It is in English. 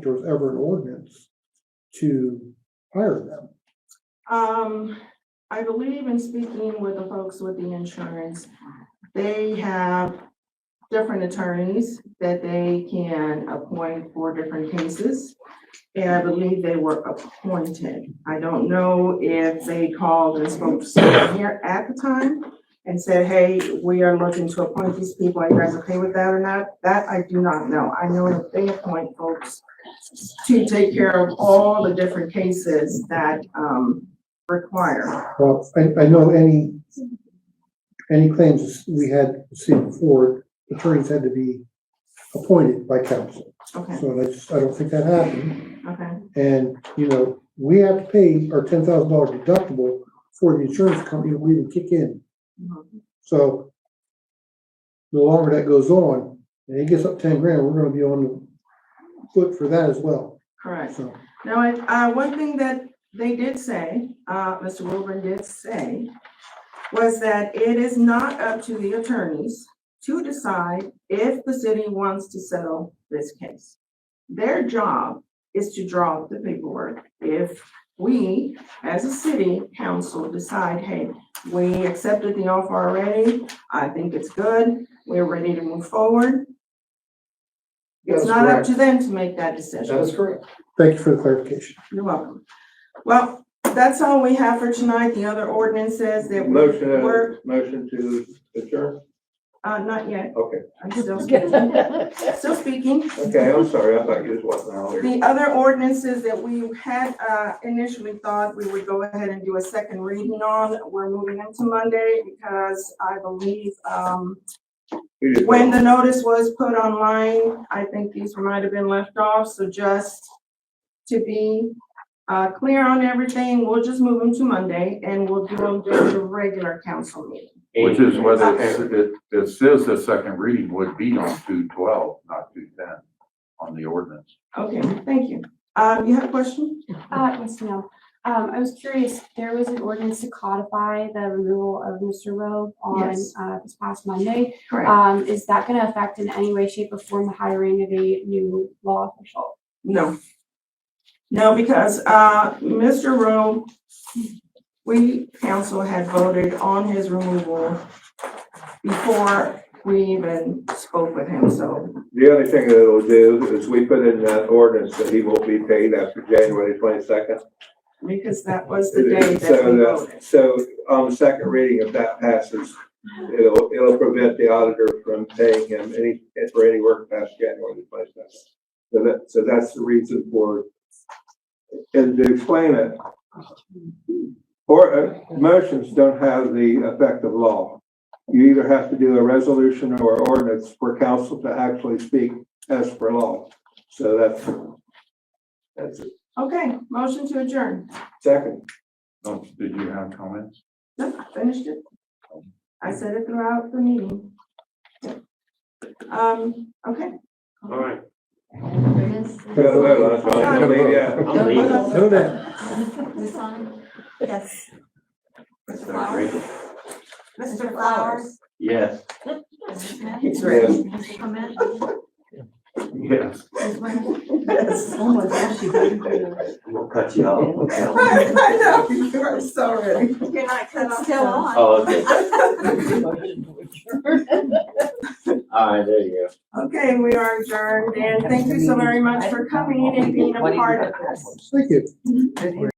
think there was ever an ordinance to hire them. Um, I believe in speaking with the folks with the insurance, they have different attorneys that they can appoint for different cases. And I believe they were appointed. I don't know if they called and spoke to someone here at the time and said, hey, we are looking to appoint these people. Are you guys okay with that or not? That I do not know. I know that they appoint folks to take care of all the different cases that, um, require. Well, I, I know any, any claims we had seen before, attorneys had to be appointed by council. Okay, So that's, I don't think that happened. okay, And, you know, we have to pay our ten thousand dollar deductible for the insurance company to even kick in. mhm, So the longer that goes on, and it gets up ten grand, we're gonna be on the foot for that as well, correct. so. Now, I- uh, one thing that they did say, uh, Mr. Wilburn did say, was that it is not up to the attorneys to decide if the city wants to settle this case. Their job is to draw up the paperwork. If we, as a city council, decide, hey, we accepted the offer already, I think it's good, we're ready to move forward. It's That's not up correct. to them to make that decision. That is correct. Thank you for the clarification. You're welcome. Well, that's all we have for tonight. The other ordinances that Motion, uh, were, motion to adjourn? uh, not yet. Okay, I'm still speaking. Still speaking. okay, I'm sorry, I thought you was watching earlier. The other ordinances that we had, uh, initially thought we would go ahead and do a second reading on, we're moving into Monday because I believe, um, You just- when the notice was put online, I think these might have been left off, so just to be uh, clear on everything, we'll just move them to Monday and we'll do them during the regular council meeting. Which is what whether it's- it, it says the second reading would be on two twelve, not two ten, on the ordinance. Okay, thank you. Um, you have a question? Uh, yes, ma'am. Um, I was curious, there was an ordinance to codify the removal of Mr. Rowe on, Yes. uh, this past Monday. Correct. Um, is that gonna affect in any way, shape, or form the hiring of a new law official? No. No, because, uh, Mr. Rowe, we council had voted on his removal before we even spoke with him, so The only thing that it'll do is we put in that ordinance that he won't be paid after January twenty-second. because that was the day that we voted. So on the second reading, if that passes, it'll, it'll prevent the auditor from paying him any, for any work past January twenty-second. So that, so that's the reason for, and to explain it, or, uh, motions don't have the effect of law. You either have to do a resolution or ordinance for council to actually speak as per law. So that's, that's it. Okay, motion to adjourn. Second. Oh, Did you have comments? No, I Finished it. I said it throughout the meeting. Um, okay. All right. We gotta vote uh, on it, so I Sorry. don't mean, yeah. I'm leaving. No doubt. Yes. That's not great. Mr. Flowers? Yes. Mr. Smith? He's ready. Mr. Clement? Yes. Ms. Ware? Yes. Oh my gosh, you got I'm gonna cut you off. I know, you are so ready. You're not It's still on. Oh, okay. All right, there you go. Okay, we are adjourned, and thank you so very much for coming and being a part of this. Thank you.